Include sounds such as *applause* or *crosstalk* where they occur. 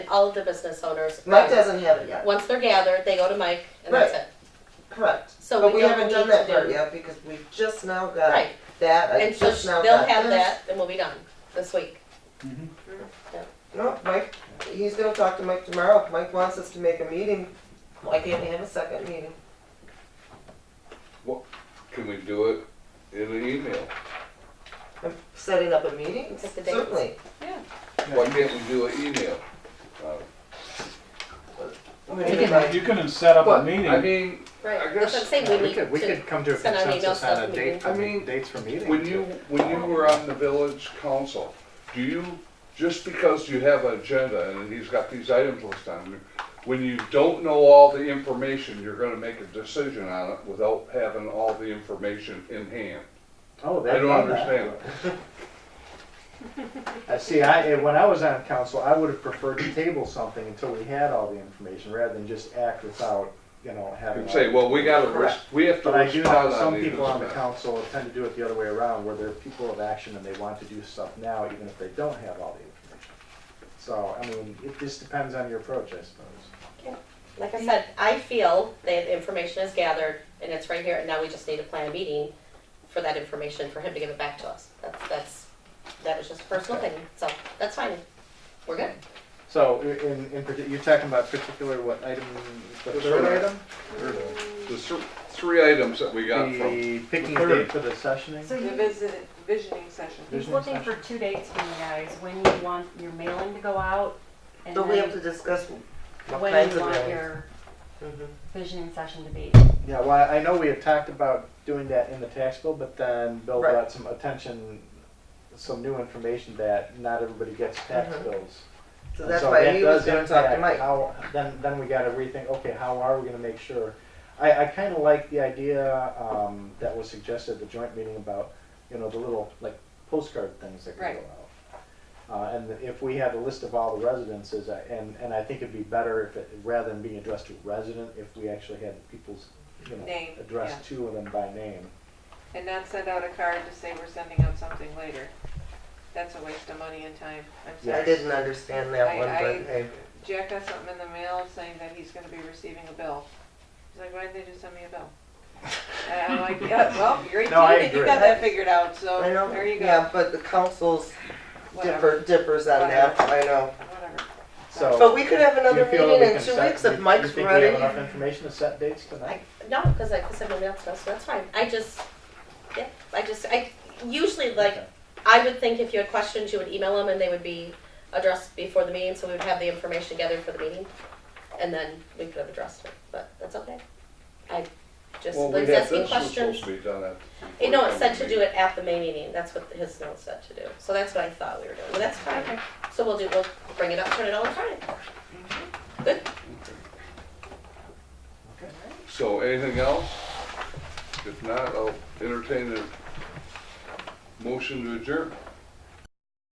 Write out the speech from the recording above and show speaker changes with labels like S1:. S1: all of the business owners.
S2: Mike doesn't have it yet.
S1: Once they're gathered, they go to Mike, and that's it.
S2: Correct.
S1: So
S2: but we
S1: don't
S2: haven't done
S1: need to
S2: that part
S1: do-
S2: yet because we've just now got
S1: Right.
S2: that. I
S1: And so
S2: just
S1: sh-
S2: now
S1: they'll
S2: got
S1: have
S2: this.
S1: that, and we'll be done this week.
S2: No, Mike, he's gonna talk to Mike tomorrow. If Mike wants us to make a meeting, why can't we have a second meeting?
S3: Can we do it in an email?
S2: I'm setting up a meeting,
S1: Pick the dates.
S2: certainly.
S3: Why can't we do an email? Uh,
S2: I mean,
S4: You
S2: like,
S4: can, you can set up
S3: But,
S4: a
S3: I
S4: meeting.
S3: mean, I
S1: Right, that's
S3: guess-
S1: what I'm saying, we
S5: We
S1: need
S5: could, we
S1: to,
S5: could come to a
S1: send out an email
S5: consensus
S1: stuff
S5: on
S1: to
S5: a date,
S1: meetings.
S5: for
S3: I
S5: me-
S3: mean,
S5: dates for meetings.
S3: when you, when you were on the village council, do you, just because you have an agenda and he's got these items listed on, it, when you don't know all the information, you're gonna make a decision on it without having all the information in hand.
S5: Oh,
S3: I
S5: they
S3: don't understand.
S5: I see, I, when I was on council, I would have preferred to table something until we had all the information, rather than just act without, you know, having.
S3: And
S5: all
S3: say,
S5: the-
S3: well, we gotta, res- we have to
S5: But I do
S3: respond
S5: know
S3: on
S5: some
S3: these.
S5: people on the council tend to do it the other way around, where they're people of action and they want to do stuff now, even if they don't have all the information. So, I mean, it just depends on your approach, I suppose.
S1: like I said, I feel that the information is gathered, and it's right here, and now we just need to plan a meeting for that information, for him to give it back to us. That's, that's, that was just a personal thing, so that's fine, we're good.
S5: So, i- in, in, partic- you're talking about particular, what item, the
S3: This
S5: third
S3: one.
S5: item?
S3: The thr- three items that we got from.
S5: The picking
S4: third.
S5: date for the sessioning?
S6: So the visit, visioning session.
S7: He's looking for two dates from you guys, when you want your mailing to go out, and
S2: But we have to
S7: then
S2: discuss what
S7: when
S2: kinds
S7: you
S2: of
S7: want
S2: meetings. Mm-hmm.
S7: your visioning session to be.
S5: Yeah, well, I know we had talked about doing that in the tax bill, but then Bill
S2: Right.
S5: brought some attention, some new information that not everybody gets tax
S7: Mm-hmm.
S2: Mhm.
S5: bills.
S2: So
S5: And
S2: that's
S5: so
S2: why
S5: that
S2: he was
S5: does
S2: gonna talk to
S5: impact
S2: Mike.
S5: How, then, then we gotta rethink, okay, how are we gonna make sure? I, I kinda like the idea, um, that was suggested at the joint meeting about, you know, the little, like, postcard things that can go
S6: Right.
S5: out. Uh, and if we had a list of all the residences, I- and, and I think it'd be better if it, rather than being addressed to resident, if we actually had people's, you know,
S6: Name,
S5: address two of them by name.
S6: And not send out a card to say we're sending out something later. That's a waste of money and time. I'm
S5: Yeah.
S2: I
S6: sorry.
S2: didn't understand that
S6: I-
S2: one,
S6: I-
S2: but hey,
S6: Jack got something in the mail saying that he's gonna be receiving a bill. He's like, why didn't they just send me a bill? And I'm like, yeah, well, you're eighteen
S5: *laughs* No, I
S6: and you
S5: agree.
S6: got that figured out, so
S2: I know,
S6: Oh, there you
S2: yeah,
S6: go.
S2: but the council's
S6: Whatever,
S2: differ, differs on that, I know.
S6: whatever.
S5: So.
S2: But we could have another
S5: do you feel that we
S2: meeting in
S5: can
S2: two
S5: set-
S2: weeks
S5: do
S2: if
S5: you
S2: Mike's
S5: think we have
S2: ready.
S5: enough information to set dates tonight?
S1: I, no, because like I said, nobody else does, so that's fine. I just, yeah, I just, I usually like,
S5: Okay.
S1: I would think if you had questions, you would email them and they would be addressed before the meeting, so we would have the information gathered for the meeting, and then we could have addressed it, but that's okay. I just,
S3: Well, we
S1: Lynn's
S3: had-
S1: asking
S3: this was
S1: questions.
S3: supposed to be done at-
S1: Eh, No, it said to do it at the May meeting, that's what his note said to do, so that's what I thought we were doing, but that's fine. So we'll do, we'll bring it up, turn it on Friday.
S3: So anything else? If not, I'll entertain a motion to adjourn.